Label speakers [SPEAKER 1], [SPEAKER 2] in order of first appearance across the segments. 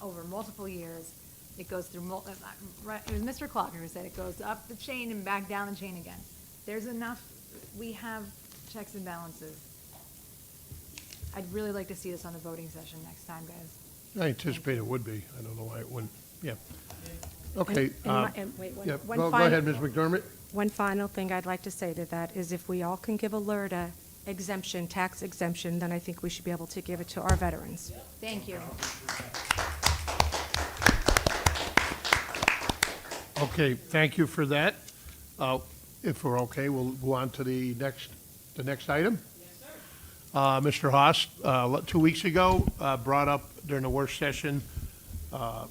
[SPEAKER 1] over multiple years. It goes through mul, uh, uh, right, it was Mr. Clocker who said it goes up the chain and back down the chain again. There's enough, we have checks and balances. I'd really like to see this on the voting session next time, guys.
[SPEAKER 2] I anticipate it would be. I don't know why it wouldn't. Yeah.
[SPEAKER 3] And-
[SPEAKER 2] Okay.
[SPEAKER 3] and
[SPEAKER 2] uh,
[SPEAKER 3] my- and wait, one-
[SPEAKER 2] yeah,
[SPEAKER 3] one
[SPEAKER 2] Go go
[SPEAKER 3] final-
[SPEAKER 2] ahead, Ms. McDermott.
[SPEAKER 3] One final thing I'd like to say to that is if we all can give Alerta exemption, tax exemption, then I think we should be able to give it to our veterans.
[SPEAKER 1] Thank you.
[SPEAKER 2] Okay, thank you for that. Uh, If we're okay, we'll go on to the next, the next item. Uh, Mr. Haas, uh, le- two weeks ago, uh, brought up during the work session, uh,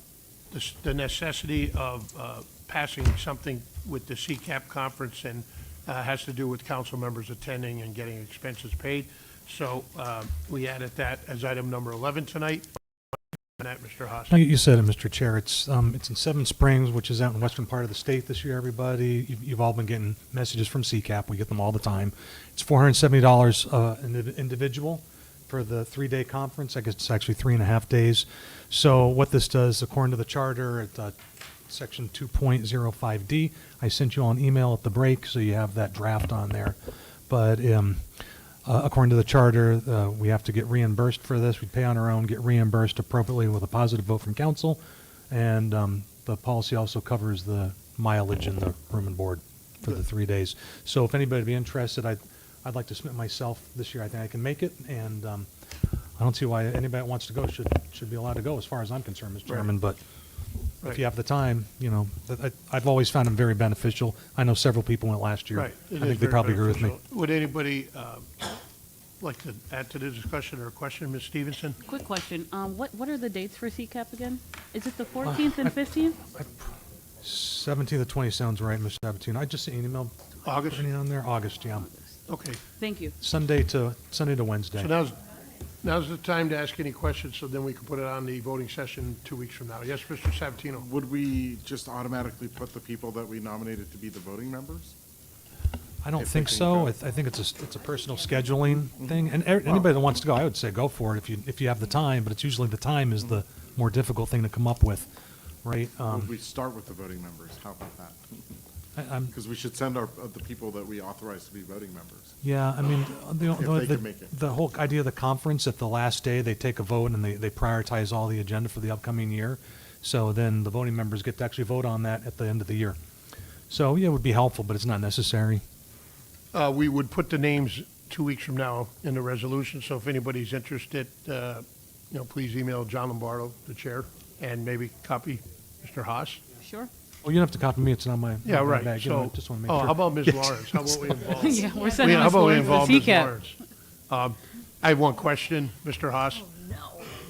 [SPEAKER 2] the s- the necessity of uh, passing something with the CCAP conference and uh, has to do with council members attending and getting expenses paid. So uh, we added that as item number 11 tonight. And that, Mr. Haas.
[SPEAKER 4] No, You you said it, Mr. Chair. It's, um, it's in Seven Springs, which is out in western part of the state this year, everybody. You've, you've all been getting messages from CCAP. We get them all the time. It's four hundred and seventy dollars, uh, an indiv- individual for the three-day conference. I guess it's actually three and a half days. So what this does, according to the charter, at, uh, section two point zero five D, I sent you all an email at the break, so you have that draft on there. But, um, uh, According to the charter, uh, we have to get reimbursed for this. We pay on our own, get reimbursed appropriately with a positive vote from council. And um, the policy also covers the mileage and the room and board for the three days. So if anybody would be interested, I'd, I'd like to submit myself this year. I think I can make it. And um, I don't see why anybody that wants to go should, should be allowed to go, as far as I'm concerned, Mr. Chairman. But if
[SPEAKER 2] Right.
[SPEAKER 4] you have the time, you know, that- I- I've always found them very beneficial. I know several people went last year.
[SPEAKER 2] Right. It
[SPEAKER 4] I
[SPEAKER 2] is
[SPEAKER 4] think they
[SPEAKER 2] very
[SPEAKER 4] probably agree with me.
[SPEAKER 2] beneficial. Would anybody um, like to add to the discussion or question, Ms. Stevenson?
[SPEAKER 5] Quick question. Um, what, what are the dates for CCAP again? Is
[SPEAKER 4] Uh,
[SPEAKER 5] it the 14th and 15th?
[SPEAKER 4] 17th to 20 sounds right, Mr. Sabatino. I just sent an email.
[SPEAKER 2] August?
[SPEAKER 4] Putting it on there, August, yeah.
[SPEAKER 2] Okay.
[SPEAKER 5] Thank you.
[SPEAKER 4] Sunday to, Sunday to
[SPEAKER 2] So
[SPEAKER 4] Wednesday.
[SPEAKER 2] now's, now's the time to ask any questions, so then we can put it on the voting session two weeks from now. Yes, Mr. Sabatino?
[SPEAKER 6] Would we just automatically put the people that we nominated to be the voting members?
[SPEAKER 4] I don't
[SPEAKER 6] if we
[SPEAKER 4] think
[SPEAKER 6] can
[SPEAKER 4] so.
[SPEAKER 6] go.
[SPEAKER 4] I th- I think it's a, s- it's a personal scheduling
[SPEAKER 2] Mm-hmm.
[SPEAKER 4] thing. And er- anybody that wants to go, I would say go for it if you, if you have the time, but it's usually the time is the more difficult thing to come up with, right?
[SPEAKER 6] Would
[SPEAKER 4] Um,
[SPEAKER 6] we start with the voting members? How about that?
[SPEAKER 4] I- I'm,
[SPEAKER 6] Because we should send our, uh, the people that we authorize to be voting members.
[SPEAKER 4] Yeah, I mean, uh, the,
[SPEAKER 6] If they
[SPEAKER 4] the,
[SPEAKER 6] can make it.
[SPEAKER 4] the whole idea of the conference, at the last day, they take a vote and they, they prioritize all the agenda for the upcoming year. So then the voting members get to actually vote on that at the end of the year. So, yeah, it would be helpful, but it's not necessary.
[SPEAKER 2] Uh, We would put the names two weeks from now in the resolution, so if anybody's interested, uh, you know, please email John Lombardo, the chair, and maybe copy Mr. Haas.
[SPEAKER 5] Sure.
[SPEAKER 4] Well, you don't Oh, have to copy me, it's not my. not
[SPEAKER 2] Yeah,
[SPEAKER 4] my
[SPEAKER 2] right,
[SPEAKER 4] bag, you know,
[SPEAKER 2] so,
[SPEAKER 4] I Just want to
[SPEAKER 2] oh,
[SPEAKER 4] make
[SPEAKER 2] how
[SPEAKER 4] sure.
[SPEAKER 2] about Ms. Lawrence? How about we involve?
[SPEAKER 5] Yeah, we're
[SPEAKER 2] Yeah,
[SPEAKER 5] sending
[SPEAKER 2] how
[SPEAKER 5] this
[SPEAKER 2] about we
[SPEAKER 5] forward to
[SPEAKER 2] involve Ms.
[SPEAKER 5] CCAP.
[SPEAKER 2] Lawrence? Um, I have one question, Mr.
[SPEAKER 5] Oh,
[SPEAKER 2] Haas.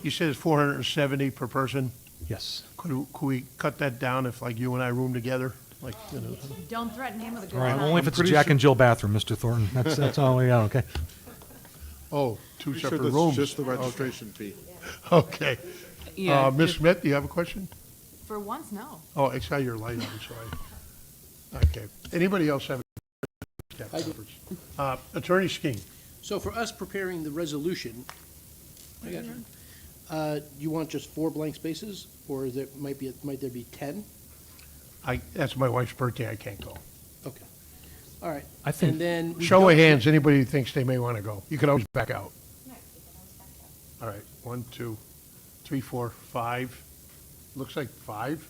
[SPEAKER 2] You said it's four hundred and seventy per person.
[SPEAKER 4] Yes.
[SPEAKER 2] Could, could we cut that down if like you and I room together? Like, you know,
[SPEAKER 1] Don't threaten him with a good
[SPEAKER 4] All right,
[SPEAKER 1] time.
[SPEAKER 4] only if
[SPEAKER 6] I'm
[SPEAKER 4] it's a
[SPEAKER 6] pretty
[SPEAKER 4] Jack
[SPEAKER 6] sure-
[SPEAKER 4] and Jill bathroom, Mr. Thornton. That's, that's all we got, okay?
[SPEAKER 2] oh, two
[SPEAKER 6] Pretty sure
[SPEAKER 2] separate
[SPEAKER 6] that's
[SPEAKER 2] rooms.
[SPEAKER 6] Just the registration fee.
[SPEAKER 2] Okay.
[SPEAKER 5] Yeah,
[SPEAKER 2] Uh, Ms.
[SPEAKER 5] just-
[SPEAKER 2] Smith, do you have a question?
[SPEAKER 1] For once, no.
[SPEAKER 2] Oh, I saw your light on, so I, okay. Anybody else have?
[SPEAKER 7] I do.
[SPEAKER 2] Uh, Attorney Skeen,
[SPEAKER 7] So for us preparing the resolution, I got you. Uh, you want just four blank spaces, or is it, might be, might there be ten?
[SPEAKER 2] I, that's my wife's birthday, I can't go.
[SPEAKER 7] Okay, all right.
[SPEAKER 4] I think-
[SPEAKER 7] And then. we
[SPEAKER 2] Show of
[SPEAKER 7] don't-
[SPEAKER 2] hands, anybody who thinks they may want to go. You can always back out. All right, one, two, three, four, five. Looks like five.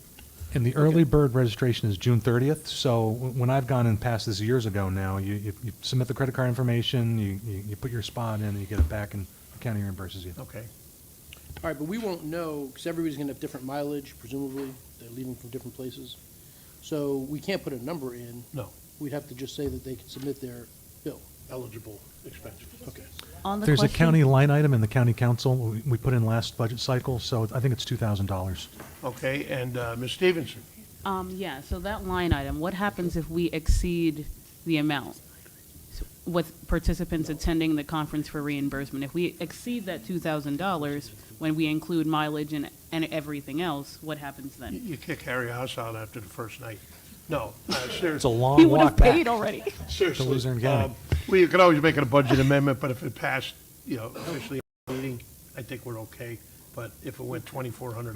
[SPEAKER 4] And the early bird registration is June 30th, so w- when I've gone and passed this years ago now, you, you you submit the credit card information, you, you you put your spot in, and you get it back, and the county reimburses you.
[SPEAKER 2] Okay.
[SPEAKER 7] All right, but we won't know, because everybody's gonna have different mileage, presumably, they're leaving from different places. So we can't put a number in.
[SPEAKER 2] No.
[SPEAKER 7] We'd have to just say that they can submit their bill.
[SPEAKER 2] Eligible expenses.
[SPEAKER 7] Okay.
[SPEAKER 5] on the
[SPEAKER 4] There's a
[SPEAKER 5] question-
[SPEAKER 4] county line item in the county council, we- we put in last budget cycle, so I think it's $2,000.
[SPEAKER 2] Okay, and uh, Ms. Stevenson,
[SPEAKER 5] Um, yeah, so that line item, what happens if we exceed the amount? So With participants attending the conference for reimbursement, if we exceed that $2,000, when we include mileage and, and everything else, what happens
[SPEAKER 2] you-
[SPEAKER 5] then?
[SPEAKER 2] you kick Harry House out after the first night. No, uh, seriously.
[SPEAKER 4] It's a
[SPEAKER 5] We
[SPEAKER 4] long
[SPEAKER 5] would
[SPEAKER 4] walk
[SPEAKER 5] have
[SPEAKER 4] back.
[SPEAKER 5] paid already.
[SPEAKER 2] Seriously.
[SPEAKER 4] To Luzerne County.
[SPEAKER 2] Um, Well, you could always make it a budget amendment, but if it passed, you know, officially at the meeting, I think we're okay. But if it went twenty-four hundred